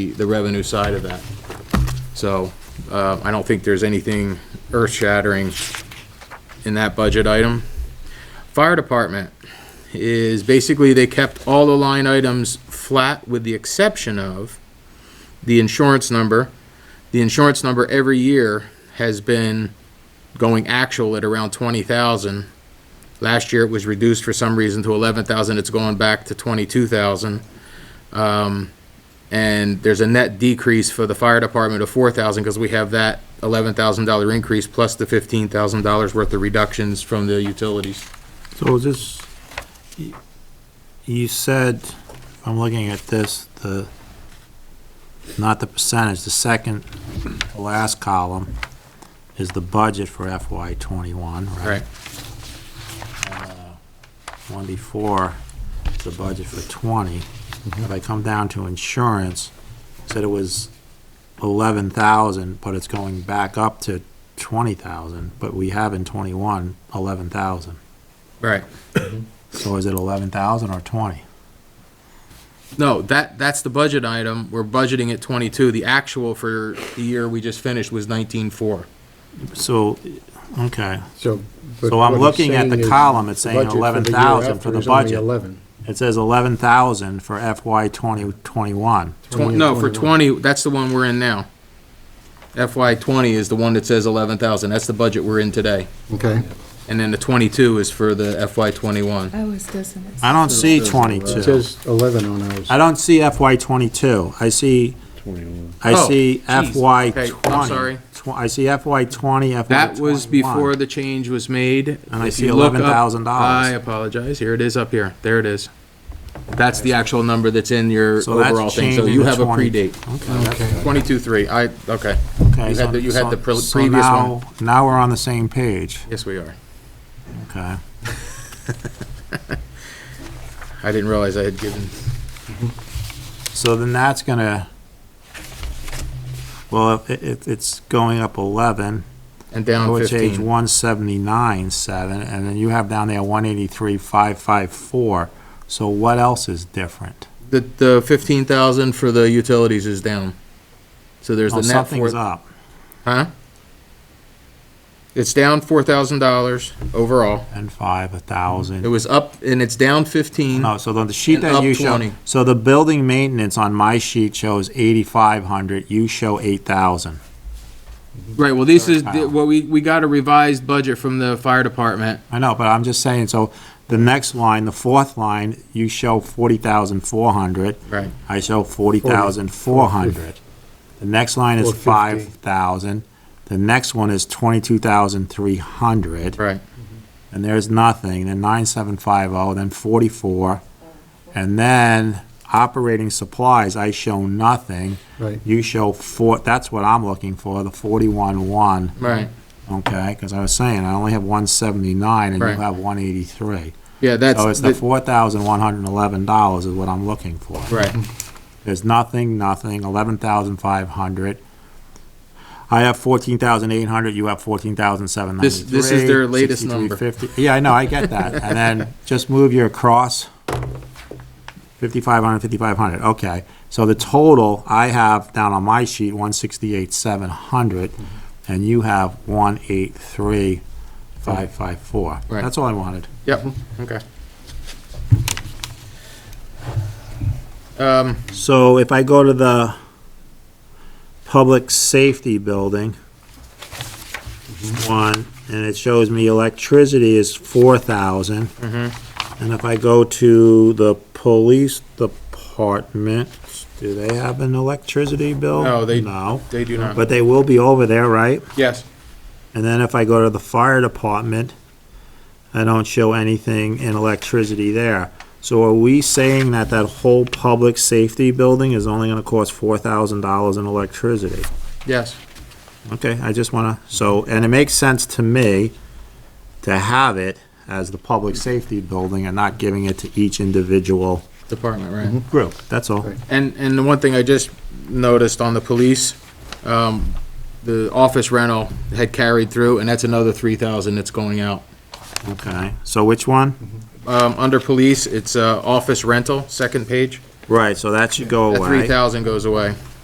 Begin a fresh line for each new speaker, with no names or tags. the revenue side of that. So uh, I don't think there's anything earth-shattering in that budget item. Fire department is basically they kept all the line items flat with the exception of the insurance number. The insurance number every year has been going actual at around twenty thousand. Last year it was reduced for some reason to eleven thousand. It's going back to twenty-two thousand. And there's a net decrease for the fire department of four thousand, because we have that eleven thousand dollar increase plus the fifteen thousand dollars worth of reductions from the utilities.
So is this, y- you said, if I'm looking at this, the, not the percentage, the second, to last column is the budget for FY twenty-one, right?
Right,
One before, is the budget for twenty. If I come down to insurance, said it was eleven thousand, but it's going back up to twenty thousand, but we have in twenty-one, eleven thousand.
right.
So is it eleven thousand or twenty?
No, that, that's the budget item. We're budgeting at twenty-two. The actual for the year we just finished was nineteen-four.
So, okay,
So. but
So I'm
what it's
looking at the
saying is
column, it's
the
saying
budget for the year
11,000 for
after
the
is only
budget.
11.
it says eleven thousand for FY twenty twenty-one.
Twenty and
No, for
21.
twenty, that's the one we're in now. FY twenty is the one that says eleven thousand. That's the budget we're in today.
Okay,
And then the twenty-two is for the FY twenty-one.
I was dissonant.
I don't see
it
twenty-two.
says eleven on ours.
I don't see FY twenty-two. I see, I
Oh,
see
geez.
FY
Okay,
twenty.
I'm sorry.
Tw- I see FY twenty, FY
That was before
twenty-one.
the change was made.
And I
If
see
you look up-
$11,000.
I apologize. Here it is up here. There it is. That's the actual number that's in your
So that's
overall thing. So
changing
you
to
have a
20.
predate.
Okay,
Twenty-two, three. I, okay.
Okay,
You had
so-
the- you had the pre-
so- so
previous one.
now- Now we're on the same page,
Yes, we are.
okay.
I didn't realize I had given,
So then that's gonna, well, it, it, it's going up eleven.
and
I
down
would change
fifteen.
one seventy-nine, seven, and then you have down there one eighty-three, five, five, four. So what else is different?
The, the fifteen thousand for the utilities is down. So there's
Oh,
the net four.
something's up.
Huh? It's down four thousand dollars overall.
And five, a
It
thousand.
was up and it's down fifteen.
No, so then the sheet
And
that
up
you show,
20.
so the building maintenance on my sheet shows eighty-five hundred, you show eight thousand.
Right, well, this is,
Kyle.
well, we, we got a revised budget from the fire department.
I know, but I'm just saying, so the next line, the fourth line, you show forty thousand, four hundred.
Right.
I show forty thousand four hundred. The next line is
Four fifty.
five thousand. The next one is twenty-two thousand three hundred. Mm-hmm.
Right.
And there's nothing, then nine seven five oh, then forty-four. And then operating supplies, I show nothing.
right.
You show four, that's what I'm looking for, the forty-one one,
Right,
okay? Because I was saying, I only have one seventy-nine and you
Right.
have one eighty-three.
yeah,
So Oh,
that's,
it's the
the-
four thousand one hundred and eleven dollars is what I'm looking for.
right,
There's nothing, nothing, eleven thousand five hundred. I have fourteen thousand eight hundred, you have fourteen thousand seven
This-
ninety-three.
this is their latest number.
Yeah, I know, I get that. And then just move your across. Fifty-five hundred, fifty-five hundred, okay. So the total I have down on my sheet, one sixty-eight seven hundred,
Mm-hmm.
and you have one eight three five five four.
Right.
That's all I wanted.
yep, okay. Um,
So if I go to the public safety building, one, and it shows me electricity is four thousand.
Mm-hmm.
And if I go to the police department, do they have an electricity bill?
No, they-
No,
they do not,
but they will be over there, right?
yes,
And then if I go to the fire department, I don't show anything in electricity there. So are we saying that that whole public safety building is only gonna cost four thousand dollars in electricity?
yes,
Okay, I just wanna, so, and it makes sense to me to have it as the public safety building and not giving it to each individual
department, right.
group, that's all.
Right.
And, and the one thing I just noticed on the police, um, the office rental had carried through, and that's another three thousand that's going out.
Okay, so which one?
Um, under police, it's, uh, office rental, second page,
Right, so that should go
that three
away.
thousand goes away.